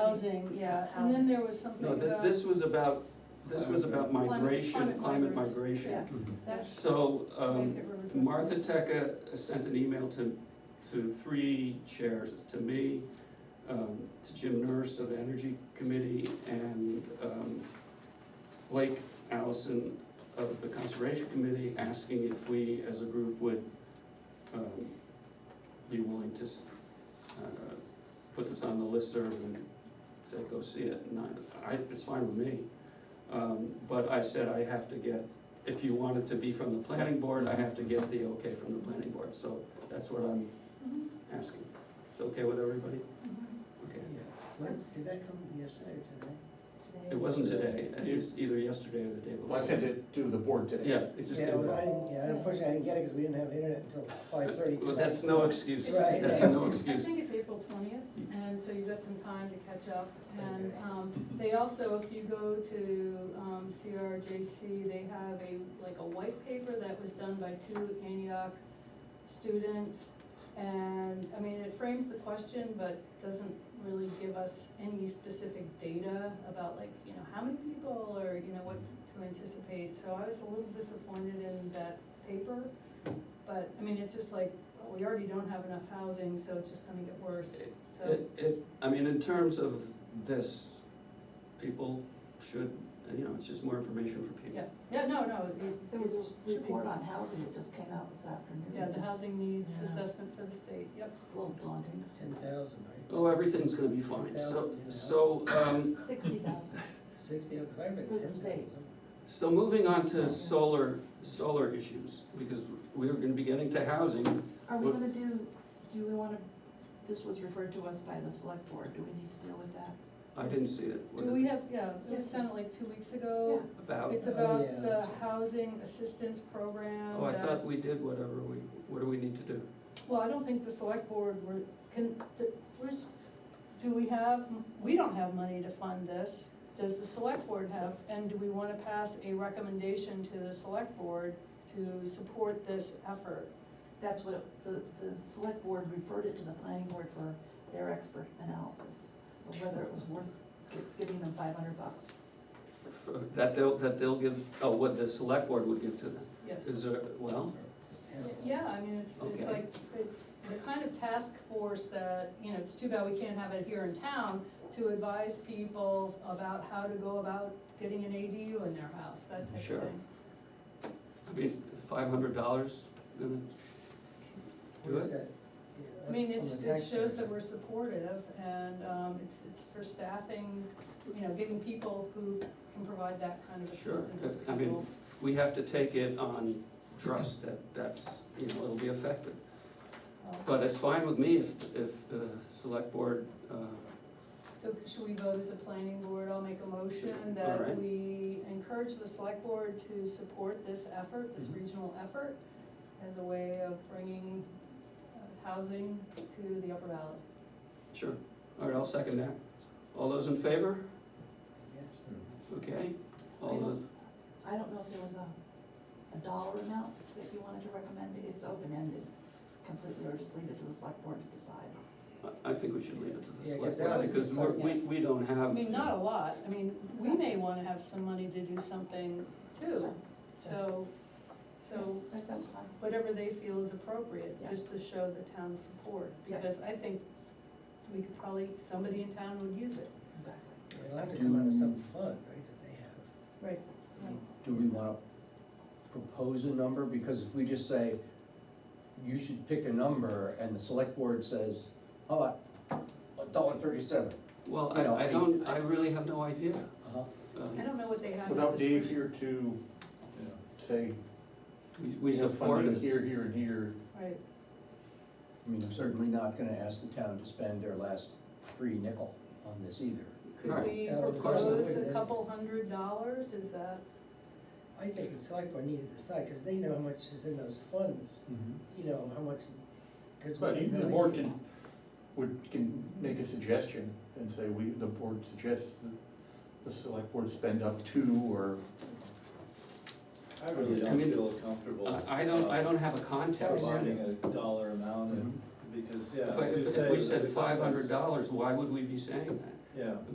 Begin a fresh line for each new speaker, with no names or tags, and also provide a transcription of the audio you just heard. housing, yeah, and then there was something
No, th-
about,
this was about, this was about
Climate-
migration,
climate
climate
migrants.
migration.
that's.
So, um,
Wait, we're- we're-
Martha Teca sent an email to, to three chairs, to me, um, to Jim Nurse of the Energy Committee, and, um, Blake Allison of the Conservation Committee, asking if we, as a group, would, um, be willing to, s- uh, put this on the listserv and say, go see it, and I, I, it's fine with me. Um, but I said I have to get if you want it to be from the planning board, I have to get the okay from the planning board, so that's what I'm
Mhm,
Mm-hmm.
asking. It's okay with everybody?
mhm.
Okay.
When, did that come yesterday or today?
It wasn't today, it was either yesterday or the day before.
Well, I sent it to the board today.
Yeah, it just
Yeah,
came
well, I
back.
didn't- Yeah, unfortunately, I didn't get it because we didn't have internet until five thirty tonight.
Well, that's no excuse,
Right.
that's no
I
excuse.
think it's April twentieth, and so you've got some time to catch up, and,
Okay.
um, they also, if you go to, um, CRJC, they have a, like a white paper that was done by two Antioch students, and, I mean, it frames the question, but doesn't really give us any specific data about like, you know, how many people, or, you know, what to anticipate, so I was a little disappointed in that paper, but, I mean, it's just like, well, we already don't have enough housing, so it's just gonna get worse, so.
It, it, I mean, in terms of this, people should, you know, it's just more information for people.
Yeah, yeah, no, no, it-
There was
it
a
should be,
report on housing that just came out this afternoon.
yeah, the housing needs
Yeah.
assessment for the state, yep.
It's A little daunting.
Ten thousand, right?
Oh, everything's gonna be fine, so, so, um,
Sixty thousand.
Sixty, because I read
For the
ten
state.
thousand.
So moving on to solar, solar issues, because we're gonna be getting to housing.
Are we
Well-
gonna do, do we wanna, this was referred to us by the select board, do we need to deal with that?
I didn't see it. What
Do
is
we
it
have, yeah, it was sent like two weeks ago.
About,
It's
Oh, yeah,
about the
that's-
housing assistance program.
oh, I
that-
thought we did whatever we, what do we need to do?
Well, I don't think the select board were, can, the- where's, do we have, we don't have money to fund this. Does the select board have, and do we wanna pass a recommendation to the select board to support this effort?
That's what, it- the, the select board referred it to the planning board for their expert analysis, of whether it was worth gi- giving them five hundred bucks.
For- That they'll, that they'll give, oh, what the select board would give to them,
Yes.
is there, well,
Yeah, I mean, it's, it's
Okay.
like, it's the kind of task force that, you know, it's too bad we can't have it here in town to advise people about how to go about getting an ADU in their house, that type of
Sure.
thing.
I mean, five hundred dollars, gonna do it?
I mean, it's, it shows that we're supportive and, um, it's, it's for staffing, you know, getting people who can provide that kind of
Sure,
assistance to
if- I mean-
people.
We have to take it on trust that that's, you know, it'll be effective.
Um,
But it's fine with me if, if the select board, uh,
So should we vote as a planning board? I'll make a motion that
Alright.
we encourage the select board to support this effort, this
Mhm.
regional effort, as a way of bringing uh, housing to the Upper Valley.
Sure, all right, I'll second that. All those in favor? Okay, all the,
I don't know if there was a, a dollar amount that you wanted to recommend, it's open-ended completely, or just leave it to the select board to decide.
I I think we should leave it to the
Yeah, 'cause
select
that
board,
would be
because we're- we, we don't
I
have,
mean, not a lot, I mean, we may wanna have some money to do something too, so, so
That sounds fine.
whatever they feel is appropriate,
Yeah.
just to show the town's support,
Yeah.
because I think we could probably, somebody in town would use it.
Exactly.
It'll have to come out of some fund, right, that they have.
Right.
Do we wanna propose a number? Because if we just say, you should pick a number, and the select board says, how about a dollar thirty-seven?
well,
You know,
I, I
I-
don't, I really have no idea.
Uh-huh.
Um,
I don't know what they have. as
Without
a
Dave
solution.
here to say,
We, we
we have
support
funding
it,
here, here, and here,
Right.
I mean, I'm certainly not gonna ask the town to spend their last free nickel on this either.
Could
Right.
we
Yeah, of
course.
propose a couple hundred dollars, is that,
I think the select board needed to decide, because they know how much is in those funds, you know, how much, because.
but even the board can, would, can make a suggestion and say, we, the board suggests that the select board spend up to, or
I really
I
don't
mean,
feel comfortable.
I, I don't, I don't have a
Tell
context.
us.
Bonding a dollar amount and, because, yeah.
If, I-
as you
if
say,
if we
the
said
context-
five hundred dollars, why would we be saying that?
yeah.